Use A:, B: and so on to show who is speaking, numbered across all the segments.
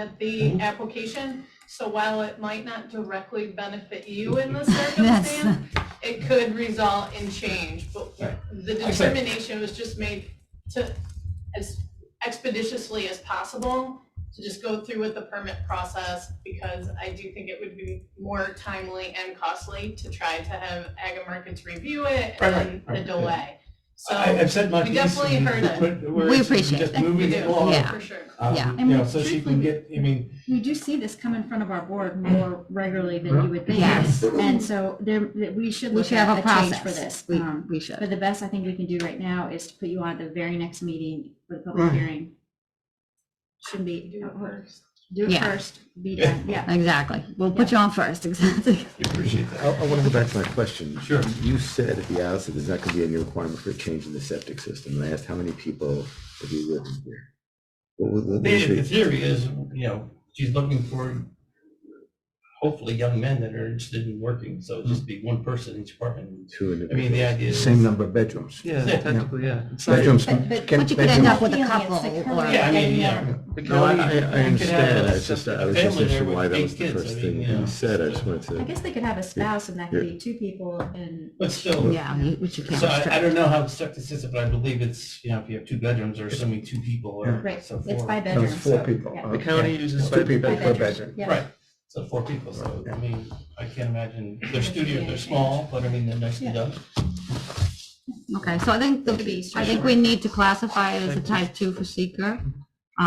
A: at the application. So while it might not directly benefit you in this circumstance, it could result in change. But
B: Right.
A: the
B: Excellent.
A: determination was just made to, as expeditiously as possible, to just go through with the permit process because I do think it would be more timely and costly to try to have Agamarkets review it
B: Right, right,
A: and
B: right,
A: a
B: yeah.
A: delay.
B: I,
A: So,
B: I've said my
A: we
B: piece.
A: definitely
B: and
A: heard it.
B: we're- we're
C: We
B: just-
C: appreciate
B: Just
C: that.
A: we
B: moving it
A: do,
B: along.
C: Yeah.
A: for sure.
B: Um,
C: Yeah.
B: You know, so she can get, I mean,
D: You do see this come in front of our board more regularly than you would think.
C: Yes.
D: And so there, that we should
C: We
D: look
C: should have a
D: at a change for
C: process.
D: this.
C: We,
D: Um,
C: we
D: But
C: should.
D: the best I think we can do right now is to put you on at the very next meeting for the public
C: Right.
D: hearing. Should be, uh,
A: Do it first.
D: do it
C: Yeah.
D: first, be done, yeah.
C: Exactly. We'll put you on first, exactly.
B: you appreciate that.
E: I, I want to go back to my question.
B: Sure.
E: You said at the outset, there's not going to be any requirement for a change in the septic system. And I asked how many people have you lived in here? What was the-
B: The, the theory is, you know, she's looking for hopefully young men that are interested in working, so just be one person in each apartment.
E: Two in
B: I mean, the idea is.
E: Same number of bedrooms.
F: Yeah,
B: Yeah.
F: technically, yeah. It's not-
E: Bedrooms.
C: But- but-
E: can-
C: but you could end
E: bedrooms-
C: up with a
D: Feeling, it's
C: couple
D: the
C: or-
D: current
B: Yeah, I mean,
D: idea.
B: yeah.
F: the
E: No, I, I,
F: county- you
E: I
F: could have
E: understand.
F: a
E: I was just, I was
B: family
E: just
B: there
E: interested
B: with
E: why that
B: big
E: was the
B: kids,
E: first
B: I
E: thing
B: mean, you know,
E: you said. I
B: so-
E: just wanted
D: I
E: to.
D: guess they could have a spouse and that could be two people and
B: But still,
C: Yeah, you- which you can't
B: so I, I
C: restrict.
B: don't know how the system, but I believe it's, you know, if you have two bedrooms or assuming two people or.
D: Right,
B: so
D: it's
B: four.
D: by
E: No,
D: bedroom.
E: it's four
D: so-
E: people.
D: yeah.
E: Uh,
F: The county uses.
E: Two people
D: By
E: per
D: bedrooms,
E: bedroom.
D: yeah.
B: Right, so four people, so, I mean, I can't imagine, their studios, they're small, but I mean, they're nicely
D: Yeah.
B: done.
C: Okay, so I think, the-
D: It could be
C: I think we need to classify it as a type two for seeker.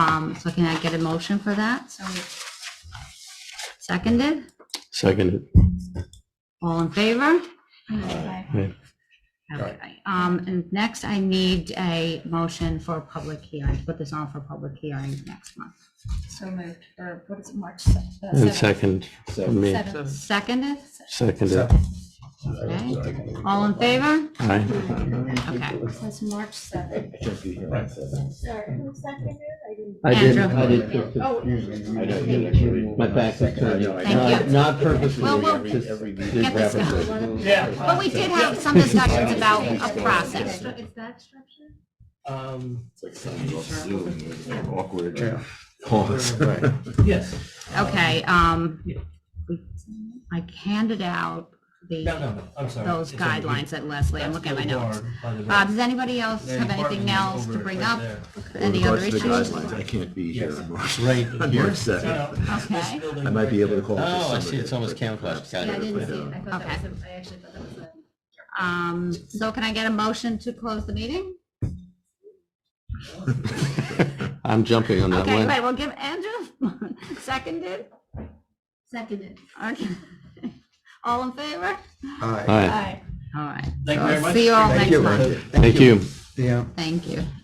C: Um, so can I get a motion for that?
D: So we-
C: Seconded?
E: Seconded.
C: All in favor?
D: mm, okay.
C: Okay. Um, and next I need a motion for a public hearing, put this on for public hearing next month.
D: So moved, or what is it, March se- uh, seventh?
G: Second,
E: So,
D: Seventh.
C: Seconded?
G: seconded,
C: Okay. All in favor? Okay.
G: aye.
D: So it's March seventh.
E: thank you.
B: Right.
H: Sorry, who seconded it? I didn't.
G: I didn't,
C: Andrew.
G: I didn't, it's
H: Oh.
E: I know,
G: just-
E: you're actually-
G: my back is turned.
E: I know, I
C: Thank
G: Not-
C: you.
G: Not purposely,
C: Well, we'll-
G: just-
E: Every.
C: Get this going.
B: Yeah.
C: But we did have some discussions about a process.
D: Is that structure?
B: Um,
E: Awkward.
F: Pause.
B: yes.
C: Okay, um, I handed out
B: No,
C: the,
B: no, no, I'm sorry.
C: those
B: It's over here.
C: guidelines at Leslie, I'm looking at my
B: That's the
C: notes.
B: bar by the
C: Uh,
B: door.
C: does anybody else
B: The
C: have anything
B: apartment
C: else to
B: over
C: bring
B: right
C: up?
B: there.
C: Any other issues?
E: I can't be here
B: Yes.
E: on March,
G: Right.
E: on March seventh.
B: No, no, it's this
C: Okay.
B: building
E: I might be
B: right
E: able to
B: there.
E: call.
G: Oh,
E: for
G: I see,
E: somebody
G: it's almost
E: for-
G: camouflaged,
D: Yeah,
G: got
D: I
G: it.
D: didn't see it. I thought that was, a- I actually thought that was a.
C: Um, so can I get a motion to close the meeting?
G: I'm jumping on that
C: Okay,
G: one.
C: wait, we'll give Andrew, seconded,
D: Seconded.
C: okay, all in favor?
G: Aye,
D: Aye.
C: All right.
B: Thank you
C: So
B: very much.
C: See you all
E: Thank
C: next
E: you.
C: month,
G: thank you.
E: Yeah.
C: thank you.